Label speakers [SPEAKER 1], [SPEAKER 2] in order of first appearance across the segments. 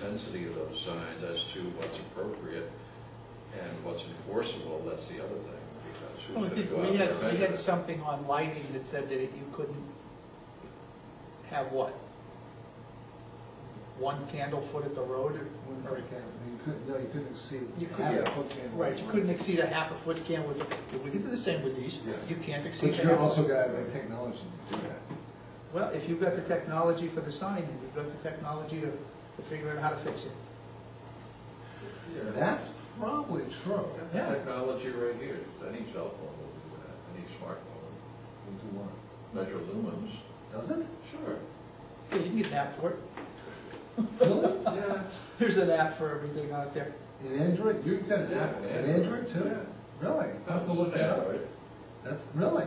[SPEAKER 1] density of those signs as to what's appropriate and what's enforceable, that's the other thing, because
[SPEAKER 2] Well, I
[SPEAKER 1] who's
[SPEAKER 2] think
[SPEAKER 1] gonna go out
[SPEAKER 2] we
[SPEAKER 1] there and
[SPEAKER 2] had, we
[SPEAKER 1] measure
[SPEAKER 2] had
[SPEAKER 1] it?
[SPEAKER 2] something on lighting that said that you couldn't have what? One candle foot at the road
[SPEAKER 3] One
[SPEAKER 2] or?
[SPEAKER 3] foot candle, you couldn't, no, you couldn't exceed
[SPEAKER 2] You
[SPEAKER 3] half
[SPEAKER 2] couldn't,
[SPEAKER 3] a foot candle.
[SPEAKER 2] right, you couldn't exceed a half a foot candle with, we could do the same with these,
[SPEAKER 3] Yeah.
[SPEAKER 2] you can't exceed
[SPEAKER 3] But
[SPEAKER 2] a
[SPEAKER 3] you're
[SPEAKER 2] half.
[SPEAKER 3] also gonna have the technology to do that.
[SPEAKER 2] Well, if you've got the technology for the sign, and you've got the technology to, to figure out how to fix it.
[SPEAKER 1] Yeah.
[SPEAKER 3] That's probably true.
[SPEAKER 1] Got the
[SPEAKER 2] Yeah.
[SPEAKER 1] Technology right here, any cell phone will do that, any smartphone,
[SPEAKER 3] We'll do one.
[SPEAKER 1] measure lumens.
[SPEAKER 3] Does it?
[SPEAKER 1] Sure.
[SPEAKER 2] Yeah, you can get an app for it,
[SPEAKER 3] Really?
[SPEAKER 1] Yeah.
[SPEAKER 2] there's an app for everything out there.
[SPEAKER 3] In Android, you've got an
[SPEAKER 1] Yeah,
[SPEAKER 3] Apple,
[SPEAKER 1] an
[SPEAKER 3] an Android too?
[SPEAKER 1] Android,
[SPEAKER 3] Really? I'll have to look that up. That's, really?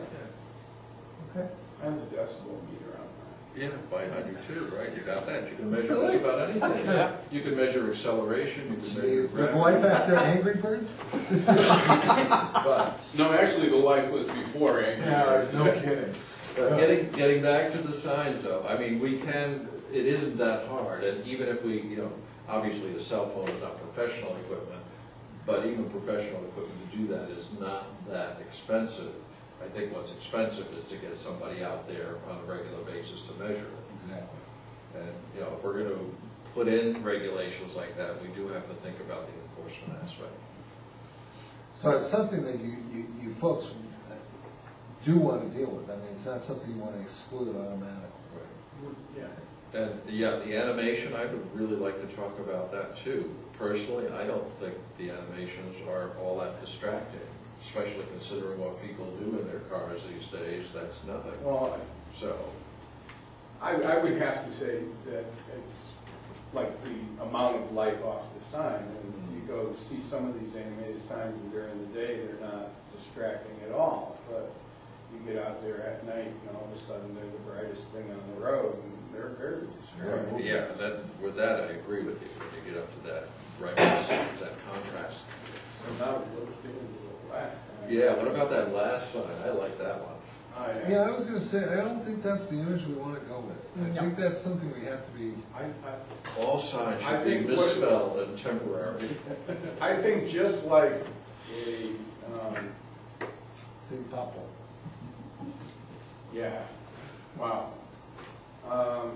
[SPEAKER 3] Okay.
[SPEAKER 4] I have the decibel meter on mine.
[SPEAKER 1] Yeah, by hundred two, right, you got that, you can measure
[SPEAKER 3] Really?
[SPEAKER 1] just about anything.
[SPEAKER 2] Okay.
[SPEAKER 1] You can measure acceleration, you can measure.
[SPEAKER 3] Jeez, is
[SPEAKER 1] gravity.
[SPEAKER 3] life after Angry Birds?
[SPEAKER 1] But
[SPEAKER 4] No, actually, the life was before, Angry Birds.
[SPEAKER 3] kidding.
[SPEAKER 1] But Getting, getting back to the signs though, I mean, we can, it isn't that hard, and even if we, you know, obviously the cell phone is not professional equipment, but even professional equipment to do that is not that expensive. I think what's expensive is to get somebody out there on a regular basis to measure it.
[SPEAKER 3] Exactly.
[SPEAKER 1] And, you know, if we're gonna put in regulations like that, we do have to think about the enforcement aspect.
[SPEAKER 3] So it's something that you, you, you folks uh, do want to deal with. I mean, it's not something you want to exclude automatically.
[SPEAKER 4] Yeah.
[SPEAKER 1] And, yeah, the animation, I would really like to talk about that too. Personally, I don't think the animations are all that distracting, especially considering what people do in their cars these days, that's nothing.
[SPEAKER 4] Well,
[SPEAKER 1] So,
[SPEAKER 4] I, I would have to say that it's like the amount of light off the sign. And you go see some of these animated signs and during the day, they're not distracting at all. But you get out there at night and all of a sudden they're the brightest thing on the road and they're very distracting.
[SPEAKER 1] yeah, that, with that, I agree with you, when you get up to that brightness, that contrast.
[SPEAKER 4] So now we look into the last sign.
[SPEAKER 1] Yeah, what about that last sign? I like that one.
[SPEAKER 4] I-
[SPEAKER 3] Yeah, I was gonna say, I don't think that's the image we want to go with.
[SPEAKER 2] No.
[SPEAKER 3] I think that's something we have to be,
[SPEAKER 4] I, I
[SPEAKER 1] All signs
[SPEAKER 4] I
[SPEAKER 1] should be
[SPEAKER 4] think what-
[SPEAKER 1] misspelled and temporary.
[SPEAKER 4] I think just like a, um,
[SPEAKER 3] see, Popple.
[SPEAKER 4] yeah, wow. Um,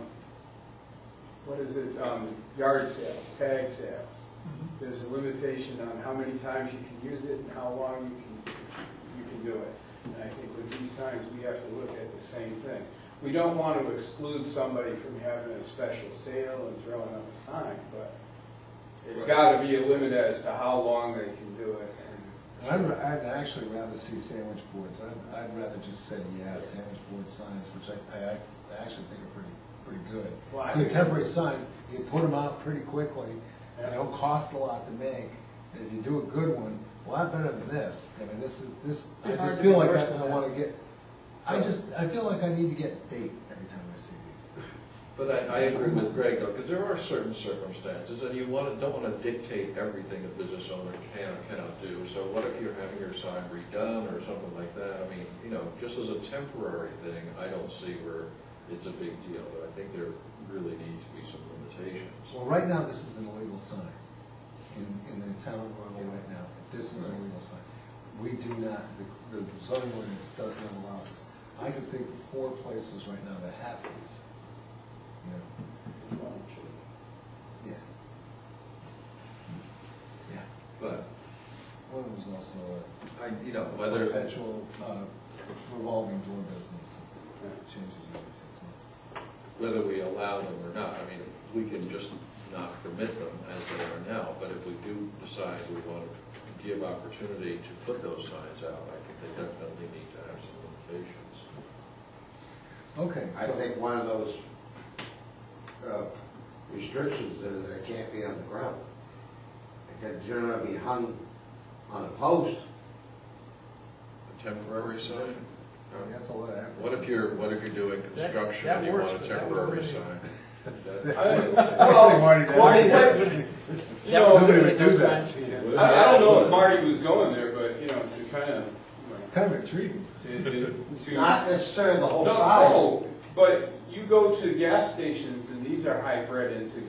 [SPEAKER 4] what is it, um, yard sales, tag sales. There's a limitation on how many times you can use it and how long you can, you can do it. And I think with these signs, we have to look at the same thing. We don't want to exclude somebody from having a special sale and throwing up a sign, but there's gotta be a limit as to how long they can do it and
[SPEAKER 3] I'd, I'd actually rather see sandwich boards. I'd, I'd rather just say, yeah, sandwich board signs, which I, I, I actually think are pretty, pretty good.
[SPEAKER 4] Well, I
[SPEAKER 3] Good
[SPEAKER 4] think-
[SPEAKER 3] temporary signs, you put them out pretty quickly, they don't cost a lot to make. And if you do a good one, a lot better than this. I mean, this is, this, I
[SPEAKER 2] It's hard
[SPEAKER 3] just
[SPEAKER 2] to
[SPEAKER 3] feel
[SPEAKER 2] be
[SPEAKER 3] like
[SPEAKER 2] worse than
[SPEAKER 3] I, I
[SPEAKER 2] that.
[SPEAKER 3] wanna get, I just, I feel like I need to get bait every time I see these.
[SPEAKER 1] But I, I agree with Greg though, because there are certain circumstances, and you want to, don't want to dictate everything a business owner can or cannot do. So what if you're having your sign redone or something like that? I mean, you know, just as a temporary thing, I don't see where it's a big deal, but I think there really need to be some limitations.
[SPEAKER 3] Well, right now, this is an illegal sign in, in the town of Arundel right now. This is an illegal sign. We do not, the- the zoning ordinance does not allow this. I can think of four places right now that have these. You know,
[SPEAKER 4] It's not true.
[SPEAKER 3] Yeah. Yeah.
[SPEAKER 1] But
[SPEAKER 3] One of them's also a
[SPEAKER 1] I, you know, whether,
[SPEAKER 3] perpetual uh, revolving door business that changes every six months.
[SPEAKER 1] whether we allow them or not, I mean, we can just not permit them as they are now, but if we do decide we want to give opportunity to put those signs out, I think they definitely need to have some limitations.
[SPEAKER 3] Okay,
[SPEAKER 5] I
[SPEAKER 3] so-
[SPEAKER 5] think one of those uh, restrictions is that it can't be on the ground. It can generally be hung on a post.
[SPEAKER 1] A temporary sign?
[SPEAKER 3] I mean, That's a lot of effort.
[SPEAKER 1] uh, What if you're, what if you're doing construction
[SPEAKER 2] that
[SPEAKER 1] and you want
[SPEAKER 2] works,
[SPEAKER 1] a
[SPEAKER 2] but that
[SPEAKER 1] temporary
[SPEAKER 2] wouldn't
[SPEAKER 1] sign?
[SPEAKER 3] Actually, Marty,
[SPEAKER 4] Marty,
[SPEAKER 3] that's-
[SPEAKER 4] You know,
[SPEAKER 3] Nobody would
[SPEAKER 2] Those
[SPEAKER 3] do that.
[SPEAKER 2] signs.
[SPEAKER 4] I, I don't know if Marty was going there, but, you know, to kind of,
[SPEAKER 3] It's kind of intriguing.
[SPEAKER 4] to.
[SPEAKER 5] Not necessarily the whole
[SPEAKER 4] No, oh,
[SPEAKER 5] size.
[SPEAKER 4] no, but you go to gas stations and these are high bred into